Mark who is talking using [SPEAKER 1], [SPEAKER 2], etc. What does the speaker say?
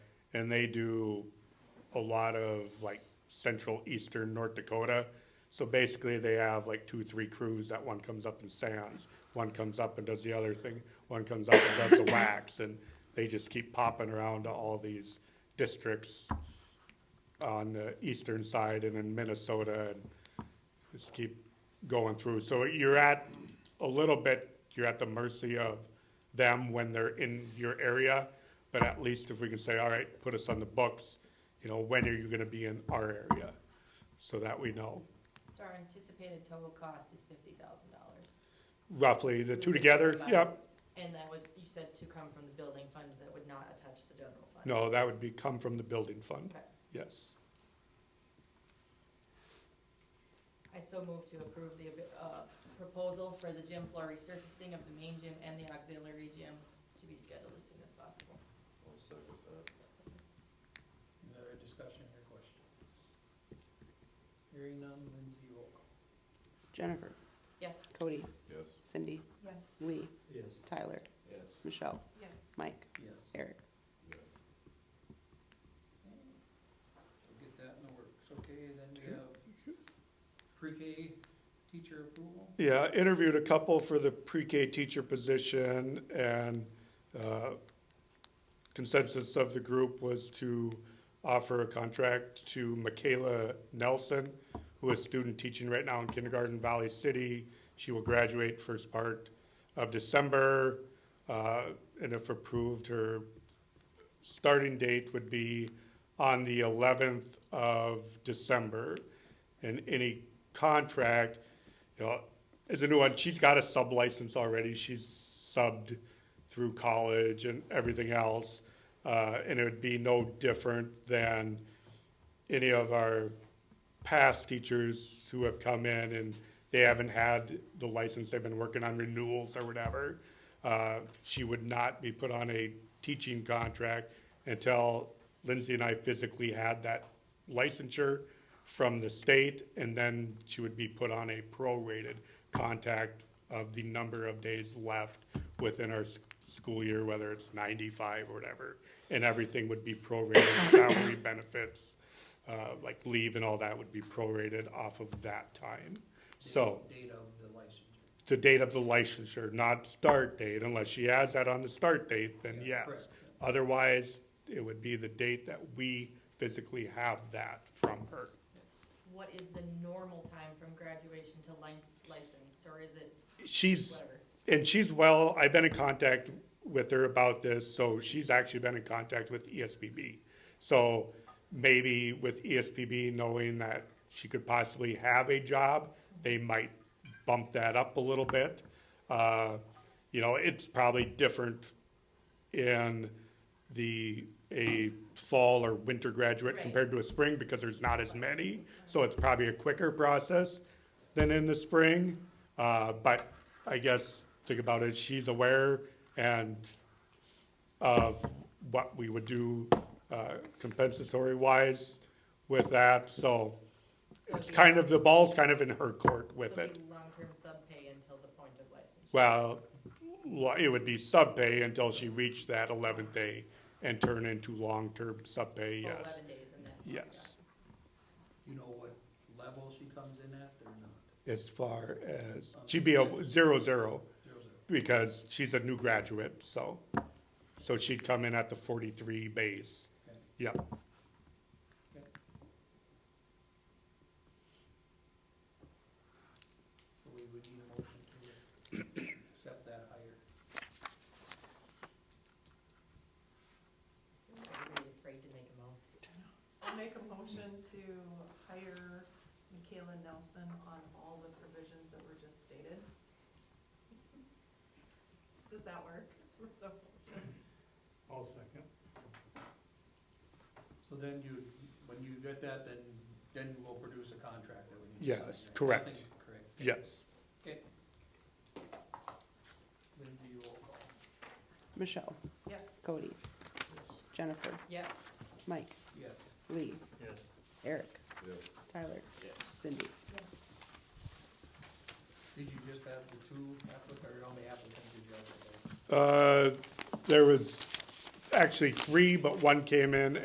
[SPEAKER 1] and they do a lot of like central eastern North Dakota. So basically, they have like two, three crews. That one comes up and sands, one comes up and does the other thing, one comes up and does the wax, and they just keep popping around to all these districts on the eastern side and in Minnesota and just keep going through. So you're at, a little bit, you're at the mercy of them when they're in your area, but at least if we can say, all right, put us on the books, you know, when are you gonna be in our area? So that we know.
[SPEAKER 2] So our anticipated total cost is fifty thousand dollars.
[SPEAKER 1] Roughly, the two together, yep,
[SPEAKER 2] And that was, you said to come from the building funds that would not attach the general fund.
[SPEAKER 1] no, that would be come from the building fund,
[SPEAKER 2] Okay,
[SPEAKER 1] yes.
[SPEAKER 2] I so move to approve the, uh, proposal for the gym floor resurfacing of the main gym and the auxiliary gym to be scheduled as soon as possible.
[SPEAKER 3] I'll second that.
[SPEAKER 4] Any other discussion or question? Hearing none, Lindsay, roll call.
[SPEAKER 5] Jennifer,
[SPEAKER 2] Yes.
[SPEAKER 5] Cody,
[SPEAKER 3] Yes.
[SPEAKER 5] Cindy,
[SPEAKER 2] Yes.
[SPEAKER 5] Lee,
[SPEAKER 4] Yes.
[SPEAKER 5] Tyler,
[SPEAKER 3] Yes.
[SPEAKER 5] Michelle,
[SPEAKER 2] Yes.
[SPEAKER 5] Mike,
[SPEAKER 4] Yes.
[SPEAKER 5] Eric.
[SPEAKER 3] Yes.
[SPEAKER 4] So get that in the works, okay, then we have pre-K teacher approval,
[SPEAKER 1] Yeah, interviewed a couple for the pre-K teacher position and uh, consensus of the group was to offer a contract to Michaela Nelson, who is student teaching right now in kindergarten Valley City. She will graduate first part of December. uh, And if approved, her starting date would be on the eleventh of December. And any contract, you know, is a new one, she's got a sub license already, she's subbed through college and everything else. Uh, and it would be no different than any of our past teachers who have come in and they haven't had the license, they've been working on renewals or whatever. Uh, she would not be put on a teaching contract until Lindsay and I physically had that licensure from the state, and then she would be put on a prorated contact of the number of days left within our s- school year, whether it's ninety-five or whatever, and everything would be prorated, salary benefits, uh, like leave and all that would be prorated off of that time. So
[SPEAKER 4] date of the licensure.
[SPEAKER 1] the date of the licensure, not start date, unless she has that on the start date, then
[SPEAKER 4] Yeah,
[SPEAKER 1] yes.
[SPEAKER 4] correct.
[SPEAKER 1] Otherwise, it would be the date that we physically have that from her.
[SPEAKER 2] What is the normal time from graduation to lic- licensed, or is it
[SPEAKER 1] She's,
[SPEAKER 2] whatever?
[SPEAKER 1] and she's well, I've been in contact with her about this, so she's actually been in contact with E ESPB. So maybe with E ESPB knowing that she could possibly have a job, they might bump that up a little bit. Uh, You know, it's probably different in the, a fall or winter graduate
[SPEAKER 2] Right.
[SPEAKER 1] compared to a spring because there's not as many. So it's probably a quicker process than in the spring. Uh, But I guess, think about it, she's aware and of what we would do uh, compensatory-wise with that. So it's kind of, the ball's kind of in her court with
[SPEAKER 2] So
[SPEAKER 1] it.
[SPEAKER 2] it'd be long-term sub-pay until the point of licensure.
[SPEAKER 1] Well, lo- it would be subpay until she reached that eleventh day and turn into long-term subpay,
[SPEAKER 2] Oh,
[SPEAKER 1] yes,
[SPEAKER 2] Eleven days and then.
[SPEAKER 1] yes.
[SPEAKER 4] You know what level she comes in at or not?
[SPEAKER 1] As far as, she'd be a zero-zero
[SPEAKER 4] Zero, zero.
[SPEAKER 1] because she's a new graduate, so, so she'd come in at the forty-three base.
[SPEAKER 4] Okay.
[SPEAKER 1] Yep,
[SPEAKER 4] So we would need a motion to accept that hire.
[SPEAKER 2] Everybody's afraid to make a motion.
[SPEAKER 6] I'll make a motion to hire Michaela Nelson on all the provisions that were just stated. Does that work? Oh, for the motion?
[SPEAKER 1] I'll second.
[SPEAKER 4] So then you, when you get that, then, then we'll produce a contract that we need to sign.
[SPEAKER 1] Yes,
[SPEAKER 4] right?
[SPEAKER 1] correct.
[SPEAKER 4] Nothing- Correct.
[SPEAKER 1] Yes,
[SPEAKER 4] Okay. Lindsay, roll call.
[SPEAKER 5] Michelle,
[SPEAKER 6] Yes.
[SPEAKER 5] Cody, Jennifer,
[SPEAKER 2] Yep.
[SPEAKER 5] Mike,
[SPEAKER 4] Yes.
[SPEAKER 5] Lee,
[SPEAKER 3] Yes.
[SPEAKER 5] Eric,
[SPEAKER 3] Yes.
[SPEAKER 5] Tyler,
[SPEAKER 3] Yes.
[SPEAKER 5] Cindy.
[SPEAKER 4] Did you just have the two applicants, or how many applicants did you have?
[SPEAKER 1] uh, there was actually three, but one came in